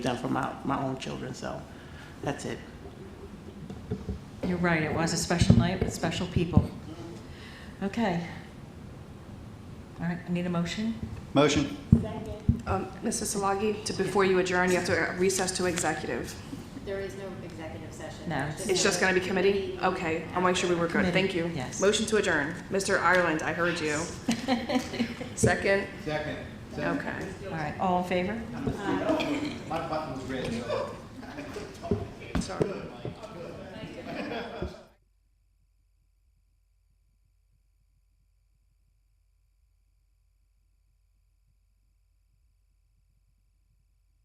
done for my, my own children, so that's it. You're right, it was a special night with special people. Okay. All right, I need a motion? Motion. Um, Mrs. Solagi, to, before you adjourn, you have to recess to executive. There is no executive session. No. It's just gonna be committee? Okay, I'll make sure we were good, thank you. Committee, yes. Motion to adjourn. Mr. Ireland, I heard you. Second? Second. Okay. All right, all in favor? My button was red, so. Sorry.